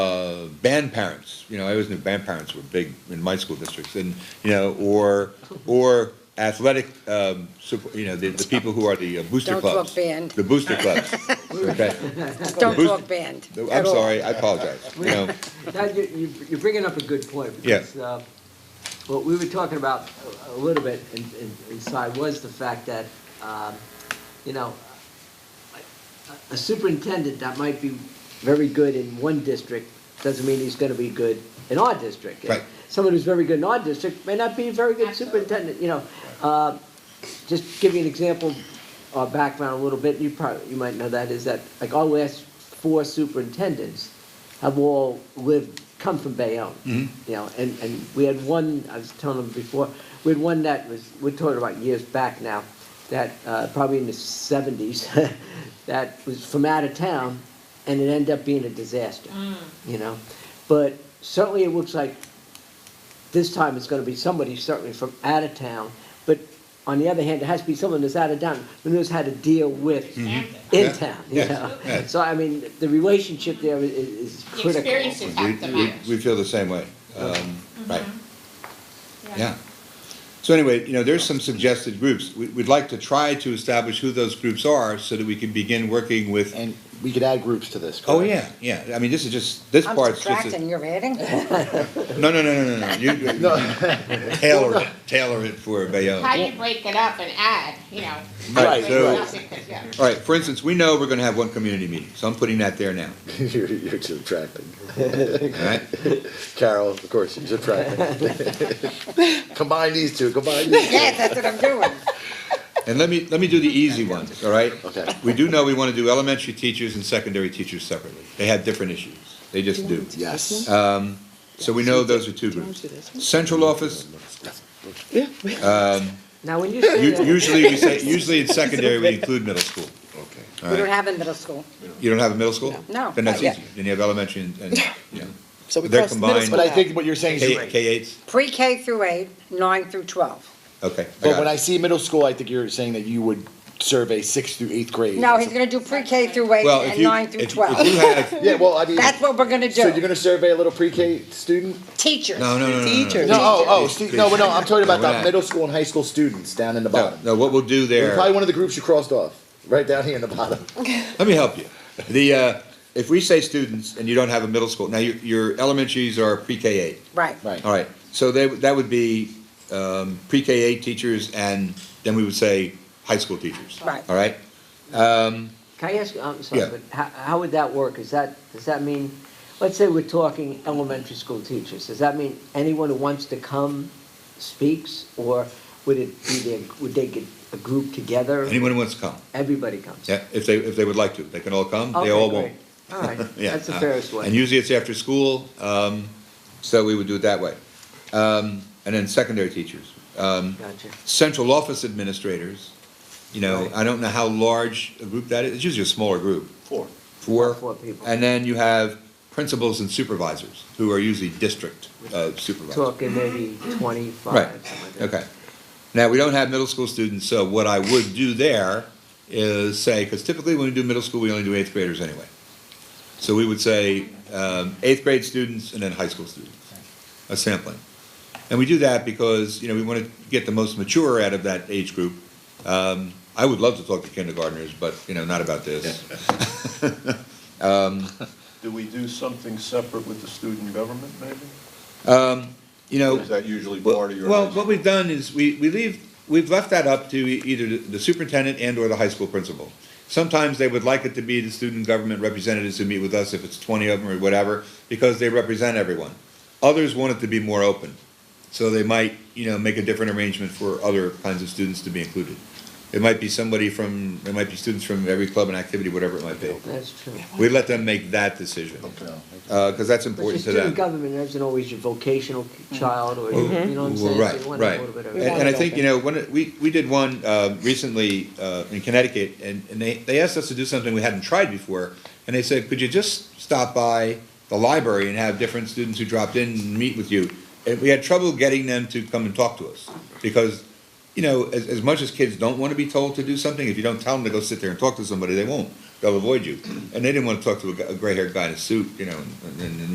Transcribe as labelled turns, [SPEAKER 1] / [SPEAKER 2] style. [SPEAKER 1] uh, band parents, you know, I always knew band parents were big in my school districts, and, you know, or, or athletic, um, sup- you know, the, the people who are the uh, booster
[SPEAKER 2] Don't talk
[SPEAKER 1] clubs.
[SPEAKER 2] band.
[SPEAKER 1] The booster clubs, okay?
[SPEAKER 2] Don't
[SPEAKER 1] Who's-
[SPEAKER 2] talk band
[SPEAKER 1] I'm
[SPEAKER 2] at all.
[SPEAKER 1] sorry, I apologize, you know,
[SPEAKER 3] Now, you- you- you're bringing up a good point.
[SPEAKER 1] Yeah.
[SPEAKER 3] because uh, What we were talking about a- a little bit in- in- inside was the fact that, um, you know, a- a superintendent that might be very good in one district doesn't mean he's going to be good in our district.
[SPEAKER 1] Right.
[SPEAKER 3] Someone who's very good in our district may not be a very good superintendent, you know. Uh, Just give you an example, our background a little bit, you probably, you might know that, is that, like, our last four superintendents have all lived, come from Bayonne. You know, and, and we had one, I was telling them before, we had one that was, we're talking about years back now, that, uh, probably in the seventies, that was from out of town, and it ended up being a disaster, you know? But certainly it looks like this time it's gonna be somebody certainly from out of town, but on the other hand, it has to be someone that's out of town, who knows how to deal with
[SPEAKER 1] Mm-hmm. Yeah.
[SPEAKER 3] in town, you
[SPEAKER 1] Yes.
[SPEAKER 3] know?
[SPEAKER 1] Yeah.
[SPEAKER 3] So, I mean, the relationship there is, is
[SPEAKER 4] The
[SPEAKER 3] critical.
[SPEAKER 4] experience is
[SPEAKER 1] we,
[SPEAKER 4] at the
[SPEAKER 1] we,
[SPEAKER 4] match.
[SPEAKER 1] we feel the same way, um, right, yeah. So anyway, you know, there's some suggested groups, we, we'd like to try to establish who those groups are, so that we can begin working with
[SPEAKER 5] And we could add groups to this, correct?
[SPEAKER 1] Oh, yeah, yeah, I mean, this is just, this
[SPEAKER 2] I'm
[SPEAKER 1] part's just,
[SPEAKER 2] subtracting,
[SPEAKER 1] a-
[SPEAKER 2] you're adding?
[SPEAKER 1] no, no, no, no, no, no, you, you- you tailor it, tailor it for Bayonne.
[SPEAKER 4] How do you break it up and add, you know?
[SPEAKER 1] Right,
[SPEAKER 4] break
[SPEAKER 1] so-
[SPEAKER 4] it up because, yeah.
[SPEAKER 1] All right, for instance, we know we're gonna have one community meeting, so I'm putting that there now,
[SPEAKER 5] You're, you're subtracting.
[SPEAKER 1] all right?
[SPEAKER 5] Carol, of course, you're subtracting. Combine these two, combine these two.
[SPEAKER 2] Yeah, that's what I'm doing.
[SPEAKER 1] And let me, let me do the easy one, all right?
[SPEAKER 5] Okay.
[SPEAKER 1] We do know we wanna do elementary teachers and secondary teachers separately, they have different issues, they just do.
[SPEAKER 5] Yes. Uh,
[SPEAKER 1] So we know those are two groups. Central office,
[SPEAKER 3] Now, when you
[SPEAKER 1] u-
[SPEAKER 3] say that,
[SPEAKER 1] usually we say, usually in secondary, we include middle school,
[SPEAKER 5] Okay.
[SPEAKER 1] all
[SPEAKER 2] We don't
[SPEAKER 1] right?
[SPEAKER 2] have in middle school.
[SPEAKER 1] You don't have a middle school?
[SPEAKER 2] No,
[SPEAKER 1] Then that's
[SPEAKER 2] not yet.
[SPEAKER 1] easy, then you have elementary and, and, you know,
[SPEAKER 6] So we
[SPEAKER 1] They're
[SPEAKER 6] crossed middle
[SPEAKER 1] combined.
[SPEAKER 6] school
[SPEAKER 5] But I
[SPEAKER 6] out.
[SPEAKER 5] think what you're saying
[SPEAKER 1] K,
[SPEAKER 5] is,
[SPEAKER 1] K eights,
[SPEAKER 2] Pre-K through eight, nine through 12.
[SPEAKER 1] okay. I
[SPEAKER 5] but
[SPEAKER 1] got
[SPEAKER 5] when
[SPEAKER 1] it.
[SPEAKER 5] I see middle school, I think you're saying that you would survey sixth through eighth grade.
[SPEAKER 2] No, he's going to do pre-K through eight
[SPEAKER 1] Well, if
[SPEAKER 2] and
[SPEAKER 1] you,
[SPEAKER 2] nine
[SPEAKER 1] if
[SPEAKER 2] through
[SPEAKER 1] if you
[SPEAKER 2] 12.
[SPEAKER 1] have,
[SPEAKER 5] Yeah, well, I mean,
[SPEAKER 2] That's what we're going to
[SPEAKER 5] so you're
[SPEAKER 2] do.
[SPEAKER 5] gonna survey a little pre-K student?
[SPEAKER 2] Teachers.
[SPEAKER 1] no, no, no, no, no, no.
[SPEAKER 6] Teachers.
[SPEAKER 5] No, oh, oh,
[SPEAKER 1] It's-
[SPEAKER 5] stu- no, no, I'm talking about
[SPEAKER 1] No, we're
[SPEAKER 5] the
[SPEAKER 1] not.
[SPEAKER 5] middle school and high school students down in the
[SPEAKER 1] No,
[SPEAKER 5] bottom.
[SPEAKER 1] no, what we'll do
[SPEAKER 5] You're
[SPEAKER 1] there,
[SPEAKER 5] Probably one of the groups you crossed off, right down here in the bottom.
[SPEAKER 1] let me help you. The, uh, if we say students and you don't have a middle school, now your, your elementaries are pre-K eight.
[SPEAKER 2] Right.
[SPEAKER 5] Right.
[SPEAKER 1] All right, so they, that would be, um, pre-K eight teachers and then we would say high school teachers.
[SPEAKER 2] Right.
[SPEAKER 1] All right,
[SPEAKER 3] can I ask, I'm sorry,
[SPEAKER 1] Yeah.
[SPEAKER 3] but how, how would that work? Is that, does that mean, let's say we're talking elementary school teachers, does that mean anyone who wants to come speaks? Or would it be their, would they get a group together?
[SPEAKER 1] anyone who wants to come,
[SPEAKER 3] Everybody comes?
[SPEAKER 1] yeah, if they, if they would like to, they can all come,
[SPEAKER 3] Okay,
[SPEAKER 1] they all
[SPEAKER 3] great.
[SPEAKER 1] won't.
[SPEAKER 3] All right,
[SPEAKER 1] Yeah,
[SPEAKER 3] that's the
[SPEAKER 1] uh,
[SPEAKER 3] fairest way.
[SPEAKER 1] And usually it's after school, um, so we would do it that way. Um, and then secondary teachers. Um,
[SPEAKER 3] Gotcha.
[SPEAKER 1] central office administrators, you know, I don't know how large a group that is, it's usually a smaller group. Four. Four.
[SPEAKER 3] Four people.
[SPEAKER 1] And then you have principals and supervisors, who are usually district uh, supervisors.
[SPEAKER 3] Talking maybe twenty-five,
[SPEAKER 1] Right,
[SPEAKER 3] something like that.
[SPEAKER 1] okay. Now, we don't have middle school students, so what I would do there is say, because typically when we do middle school, we only do eighth graders anyway. So we would say, um, eighth grade students and then high school students, a sampling. And we do that because, you know, we want to get the most mature out of that age group. Um, I would love to talk to kindergartners, but, you know, not about this.
[SPEAKER 7] Do we do something separate with the student government, maybe?
[SPEAKER 1] You know.
[SPEAKER 7] Or Is that usually
[SPEAKER 1] Well-
[SPEAKER 7] part of your?
[SPEAKER 1] Well, what we've done is we, we leave, we've left that up to e- either the- the superintendent and or the high school principal. Sometimes they would like it to be the student government representatives who meet with us, if it's twenty of them or whatever, because they represent everyone. Others want it to be more open, so they might, you know, make a different arrangement for other kinds of students to be included. It might be somebody from, it might be students from every club and activity, whatever it might be.
[SPEAKER 3] That's true.
[SPEAKER 1] We let them make that decision, Uh 'cause cause that's
[SPEAKER 3] But the
[SPEAKER 1] important to them. Mm-hmm.
[SPEAKER 3] student government isn't always your vocational child or, you know what I'm saying?
[SPEAKER 1] Right,
[SPEAKER 3] So you want a
[SPEAKER 1] right.
[SPEAKER 3] little bit of-
[SPEAKER 1] And, and I think, you know, when, it- we, we did one, uh, recently, uh, in Connecticut, and, and they, they asked us to do something we hadn't tried before. And they said, could you just stop by the library and have different students who dropped in and meet with you? And we had trouble getting them to come and talk to us, because, you know, as, as much as kids don't wanna be told to do something, if you don't tell them to go sit there and talk to somebody, they won't. They'll avoid you. And they didn't wanna talk to a, gray haired guy in a suit, you know, and, and, and